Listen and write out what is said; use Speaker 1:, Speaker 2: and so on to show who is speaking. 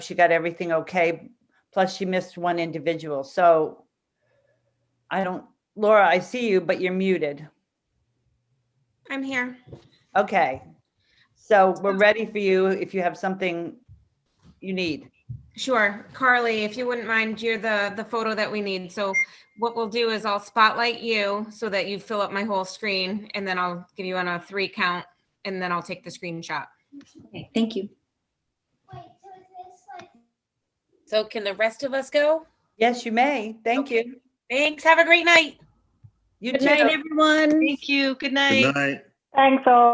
Speaker 1: she got everything okay, plus she missed one individual, so I don't, Laura, I see you, but you're muted.
Speaker 2: I'm here.
Speaker 1: Okay. So we're ready for you if you have something you need.
Speaker 2: Sure. Carly, if you wouldn't mind, you're the, the photo that we need. So what we'll do is I'll spotlight you so that you fill up my whole screen and then I'll give you on a three count and then I'll take the screenshot.
Speaker 3: Okay, thank you.
Speaker 4: So can the rest of us go?
Speaker 1: Yes, you may. Thank you.
Speaker 4: Thanks. Have a great night.
Speaker 1: You
Speaker 5: Good night,
Speaker 1: too.
Speaker 5: everyone.
Speaker 6: Thank you. Good night.
Speaker 7: Good night.
Speaker 8: Thanks all.